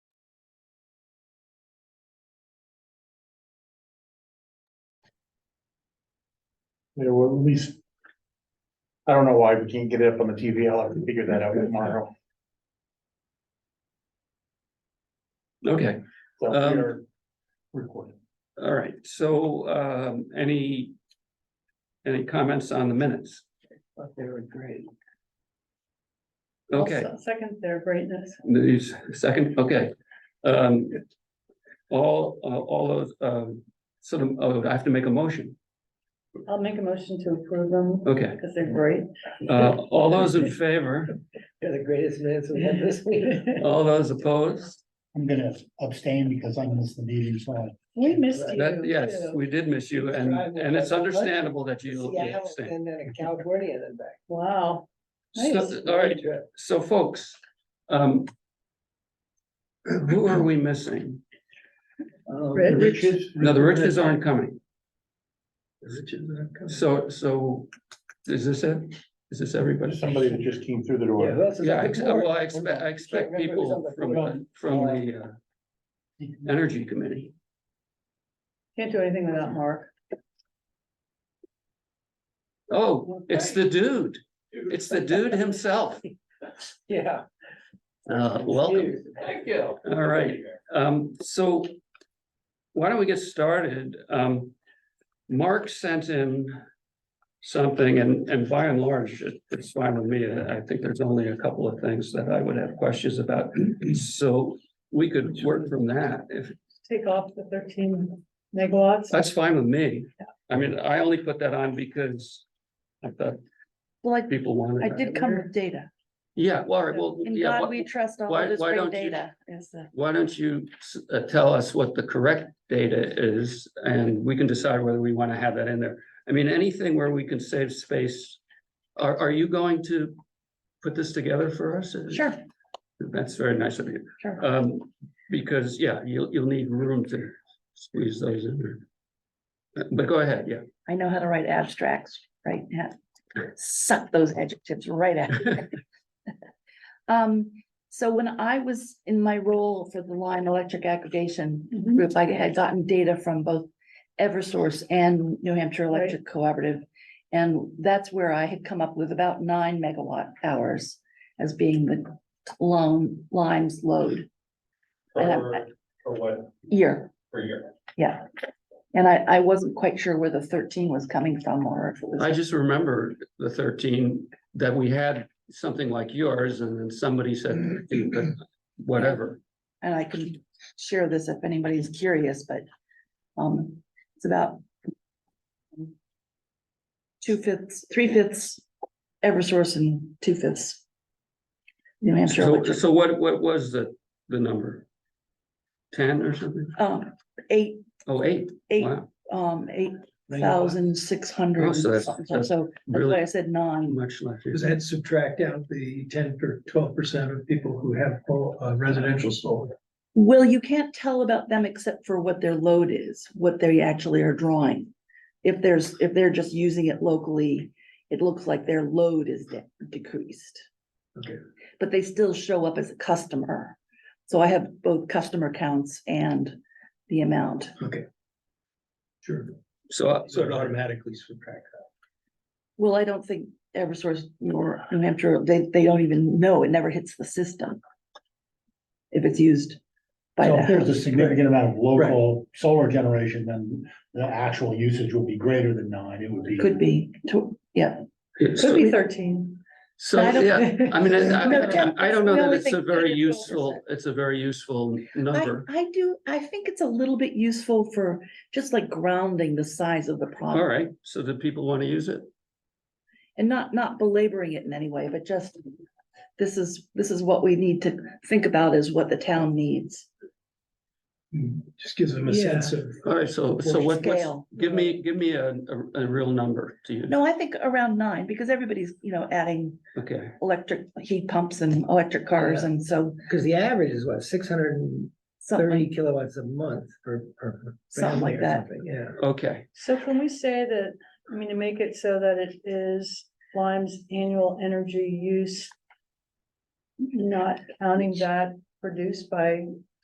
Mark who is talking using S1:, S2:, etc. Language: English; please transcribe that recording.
S1: you know, at least. I don't know why we can't get it up on the TV. I'll have to figure that out tomorrow.
S2: Okay,
S1: So we
S2: Um,
S1: are recording.
S2: all right, so um any. Any comments on the minutes?
S3: They were great.
S2: Okay,
S3: Also, Second, their greatness.
S2: these second, okay. Um. All, all those, um, sort of, oh, I have to make a motion.
S3: I'll make a motion to approve them
S2: Okay,
S3: because they're great.
S2: uh, all those in favor,
S4: They're the greatest minutes we had this week.
S2: all those opposed?
S5: I'm gonna abstain because I missed the meeting, so I-
S3: We missed you.
S2: That, yes, we did miss you and, and it's understandable that you
S4: Seattle
S2: abstained.
S4: And then a California and then back.
S3: Wow.
S2: So, all right, so folks, um. Who are we missing?
S6: Oh,
S4: Um,
S3: Red
S4: the
S3: Rich.
S4: Riches-
S2: No, the riches aren't coming.
S4: the Riches aren't coming.
S2: So, so is this it? Is this everybody?
S1: There's somebody that just came through the
S4: Yeah, who
S1: door.
S4: else is
S2: Yeah, I
S4: on
S2: ex-
S4: the board?
S2: well, I expect, I expect people from, the- from the, uh, Energy Committee.
S3: Can't do anything without Mark.
S2: Oh, it's the dude. It's the dude himself.
S4: Yeah.
S2: Uh, welcome.
S4: Thank you.
S2: All right, um, so why don't we get started? Um, Mark sent in something and, and by and large, it- it's fine with me. I think there's only a couple of things that I would have questions about. So we could work from that if,
S3: Take off the thirteen megawatts.
S2: That's fine with me. I mean, I only put that on because I thought
S7: Well, I,
S2: people wanted.
S7: I
S2: that.
S7: did come with data,
S2: Yeah, well, all right, well,
S7: and
S2: yeah,
S7: God,
S2: why,
S7: we trust all
S2: why-
S7: of this
S2: why
S7: great
S2: don't you-
S7: data, is the,
S2: why don't you s- uh, tell us what the correct data is? And we can decide whether we want to have that in there. I mean, anything where we can save space. Are, are you going to put this together for us?
S7: sure,
S2: That's very nice of you.
S7: sure.
S2: Um, because, yeah, you'll, you'll need room to squeeze those in there. Uh, But go ahead, yeah.
S7: I know how to write abstracts, right, yeah. suck those adjectives right out. Um, so when I was in my role for the Line Electric Aggregation
S3: Mhm.
S7: Group, I had gotten data from both Eversource and New Hampshire Electric Cooperative. And that's where I had come up with about nine megawatt hours as being the loan, Lime's load And I-
S8: For, for what,
S7: year.
S8: for your,
S7: Yeah. And I, I wasn't quite sure where the thirteen was coming from or if it
S2: I
S7: was,
S2: just remember the thirteen, that we had something like yours, and then somebody said, whatever.
S7: and I can share this if anybody's curious, but, um, it's about two fifths, three fifths Eversource and two fifths New Hampshire
S2: So,
S7: Electric.
S2: so what, what was the, the number? Ten or something?
S7: Um, eight,
S2: Oh, eight,
S7: eight,
S2: wow,
S7: um, eight thousand six
S2: Oh,
S7: hundred.
S2: so that's- that's
S7: So that's why
S2: really
S7: I said nine.
S2: much left.
S6: Does that subtract out the ten or twelve percent of people who have uh, residential solar?
S7: Well, you can't tell about them except for what their load is, what they actually are drawing. If there's, if they're just using it locally, it looks like their load is de- decreased.
S6: Okay.
S7: But they still show up as a customer. So I have both customer counts and the amount.
S6: Sure,
S2: So, uh,
S6: so it automatically subtracts.
S7: Well, I don't think Eversource nor New Hampshire, they, they don't even know. It never hits the system. If it's used by
S5: so if
S7: that.
S5: there's a significant amount of local solar generation, then the actual usage will be greater than nine, it would be.
S7: Could be, to- yeah.
S3: Could be thirteen.
S2: so, yeah, I mean, I,
S7: No,
S2: I-
S7: ten-
S2: I don't know
S7: we
S2: that
S7: only
S2: it's a
S7: think
S2: very
S7: 10 or
S2: useful,
S7: 12%.
S2: it's a very useful
S7: I,
S2: number.
S7: I do, I think it's a little bit useful for just like grounding the size of the
S2: All
S7: problem
S2: right, so do people want to use it?
S7: and not, not belaboring it in any way, but just this is, this is what we need to think about is what the town needs.
S6: Just gives them a
S4: Yeah.
S6: sense of.
S2: All right, so, so
S6: Or
S2: what, what's,
S7: scale.
S2: give me, give me a, a, a real number to use.
S7: No, I think around nine, because everybody's, you know, adding
S2: Okay.
S7: electric heat pumps and electric cars
S4: Yeah.
S7: and so
S4: Because the average is what, six hundred and thirty
S7: something,
S4: kilowatts a month per, per.
S7: something
S4: family
S7: like
S4: or
S7: that.
S4: something, Yeah.
S2: Okay,
S3: So can we say that, I mean, to make it so that it is Lime's annual energy use? Not counting that produced by